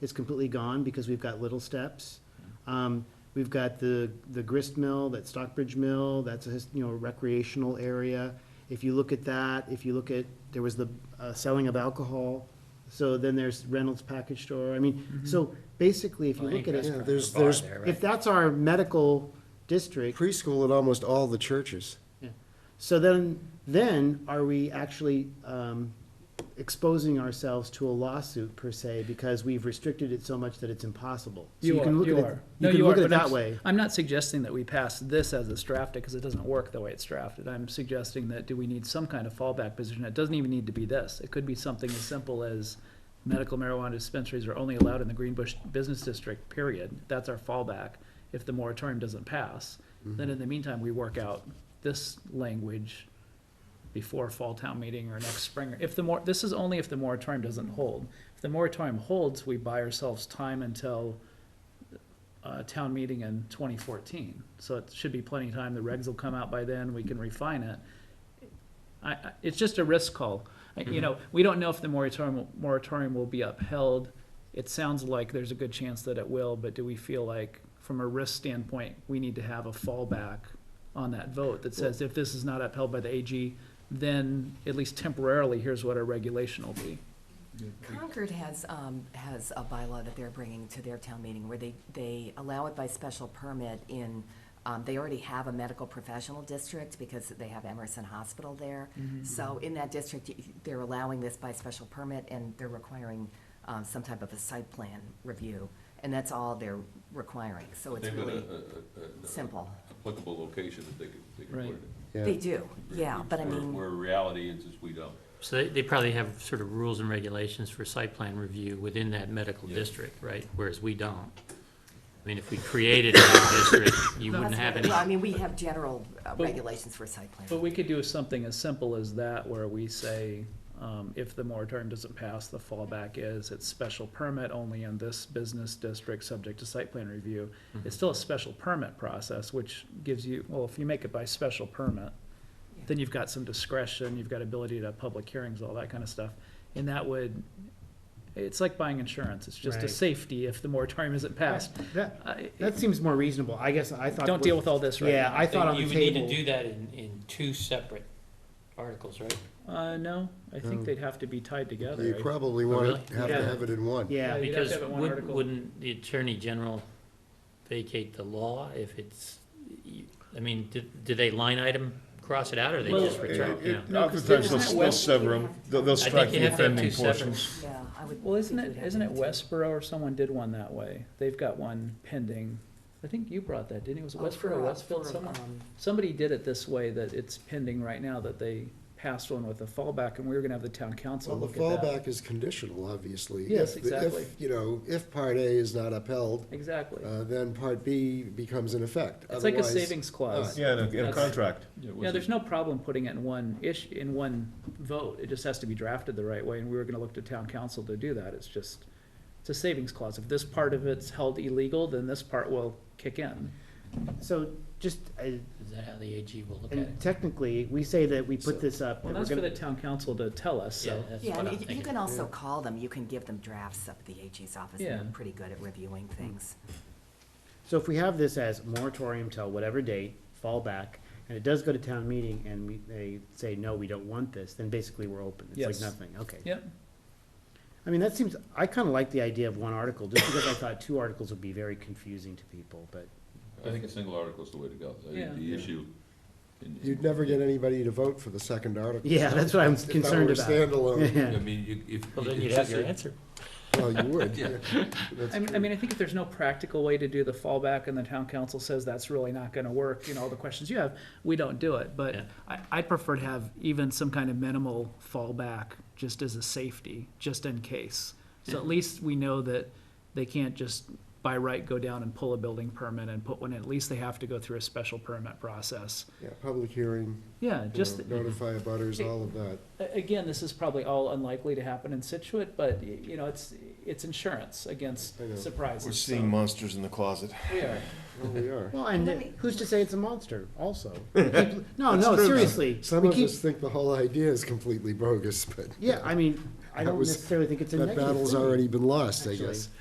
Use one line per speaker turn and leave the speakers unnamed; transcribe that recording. is completely gone because we've got little steps. Um, We've got the, the grist mill, that Stockbridge Mill, that's a, his- you know, recreational area. If you look at that, if you look at, there was the uh, selling of alcohol, so then there's Reynolds Package Store, I mean, so basically, if you
Mm-hmm. Well,
look
any
at it,
restaurant or
there's-
bar
there's-
there,
if
right?
that's our medical district,
preschool at almost all the churches.
so then, then are we actually um, exposing ourselves to a lawsuit per se because we've restricted it so much that it's impossible? So
You are,
can look
you
at it-
are. No,
You can
you
look
are,
at it
but I'm
that
s-
way.
I'm not suggesting that we pass this as it's drafted, because it doesn't work the way it's drafted. I'm suggesting that do we need some kind of fallback position? It doesn't even need to be this. It could be something as simple as medical marijuana dispensaries are only allowed in the Greenbush Business District, period. That's our fallback. If the moratorium doesn't pass,
Mm-hmm.
then in the meantime, we work out this language before fall town meeting or next spring. If the mor, this is only if the moratorium doesn't hold. If the moratorium holds, we buy ourselves time until uh, town meeting in twenty fourteen. So it should be plenty of time. The regs will come out by then. We can refine it. I, I, it's just a risk call. I- You know, we don't know if the moratorium, moratorium will be upheld. It sounds like there's a good chance that it will, but do we feel like, from a risk standpoint, we need to have a fallback on that vote that says if this is not upheld by the AG, then at least temporarily, here's what our regulation will be.
Concord has, um, has a bylaw that they're bringing to their town meeting where they, they allow it by special permit in, um, they already have a medical professional district because they have Emerson Hospital there.
Mm-hmm,
So in that district, y- they're allowing this by special permit and they're requiring, um, some type of a site plan review. And that's all they're requiring, so it's
They've got a- uh,
really
a- a- a-
simple.
Applicable location that they could, they could put
Right.
it in.
Yeah.
They do, yeah, but I
Where-
mean,
Where reality is, is we don't.
So they, they probably have sort of rules and regulations for site plan review within that medical
Yeah.
district, right? Whereas we don't. I mean, if we created a new district, you wouldn't
that's
have
what-
any,
well, I mean, we have general uh,
But-
regulations for site plan.
But we could do something as simple as that, where we say, um, if the moratorium doesn't pass, the fallback is it's special permit only in this business district, subject to site plan review. It's still a special permit process, which gives you, well, if you make it by special permit, then you've got some discretion, you've got ability to have public hearings, all that kind of stuff. And that would, it's like buying insurance, it's just a
Right.
safety if the moratorium isn't passed.
That,
I-
that seems more reasonable. I guess I thought.
Don't deal with all this right
Yeah,
now.
I thought on
you
the
would need to
table.
do that in, in two separate articles, right?
Uh, no, I think they'd have to be tied together.
You
I-
probably want to
really?
have to
Yeah.
have it in one.
Yeah,
you'd have to
Because
have it one
wouldn't,
article.
wouldn't the Attorney General vacate the law if it's, you- I mean, do, do they line item cross it out or they
Well,
just retract, you know?
Oftentimes,
isn't it
they'll, they'll
West-
sever them, they'll, they'll
I
strike
think you
the
have to have two
offending
separate.
portions.
Yeah, I would.
Well, isn't
think
it,
you'd have
isn't it
to do that.
Westboro or someone did one that way? They've got one pending. I think you brought that, didn't you? Was it
Oh, for,
Westboro or
uh,
Westfield?
for,
Someone,
um,
somebody did it this way that it's pending right now, that they passed one with a fallback and we were gonna have the town
Well,
council
the
look at that.
fallback is conditional, obviously.
Yes,
If the- if,
exactly.
You know, if Part A is not upheld,
Exactly.
uh, then Part B becomes in effect.
It's like a
Otherwise- uh,
savings clause.
Yeah, in a- in a
That's-
contract.
Yeah, there's no problem putting it in one ish, in one vote. It just has to be drafted the right way and we were gonna look to town council to do that. It's just, it's a savings clause. If this part of it's held illegal, then this part will kick in.
so just, I-
Is that how the AG will look at it?
and technically, we say that we put this up.
Well,
that we're
that's for
gonna-
the town council to tell us,
Yeah,
so.
that's
Yeah,
what
and
I'm
you- you
thinking.
can also call them, you can give them drafts up at the AG's office, and
Yeah.
they're pretty good at reviewing things.
So if we have this as moratorium till whatever date, fallback, and it does go to town meeting and we, they say, no, we don't want this, then basically we're open. It's like
Yes.
nothing, okay.
Yep.
I mean, that seems, I kinda like the idea of one article, just because I thought two articles would be very confusing to people, but,
I think a single article is the way to go. I
Yeah.
think the issue. in- in-
You'd never get anybody to vote for the second article.
yeah, that's what I'm concerned
If
about.
that were standalone,
I
Yeah.
mean, you, if.
Well, then
it's
you'd have
just
your
a-
answer.
well, you would.
Yeah.
yeah. That's
I mean, I
true.
mean, I think if there's no practical way to do the fallback and the town council says that's really not gonna work, you know, all the questions you have, we don't do it. But
Yeah.
I, I'd prefer to have even some kind of minimal fallback, just as a safety, just in case. So at least we know that they can't just by right go down and pull a building permit and put one, in. at least they have to go through a special permit process.
Yeah, public hearing,
Yeah,
you
just,
know, notify abutters, all of that.
A- Again, this is probably all unlikely to happen in Situate, but, y- you know, it's, it's insurance against
I know.
surprises.
We're
so-
seeing monsters in the closet.
We are.
Well, we are.
Well, and
Let me-
who's to say it's a monster also? We keep- No, no, seriously,
Some
we
of
keep,
us think the whole idea is completely bogus, but
yeah, I mean, I
That
don't
was-
necessarily think it's a
that
negative
battle's
thing.
already been lost, I
actually.
guess.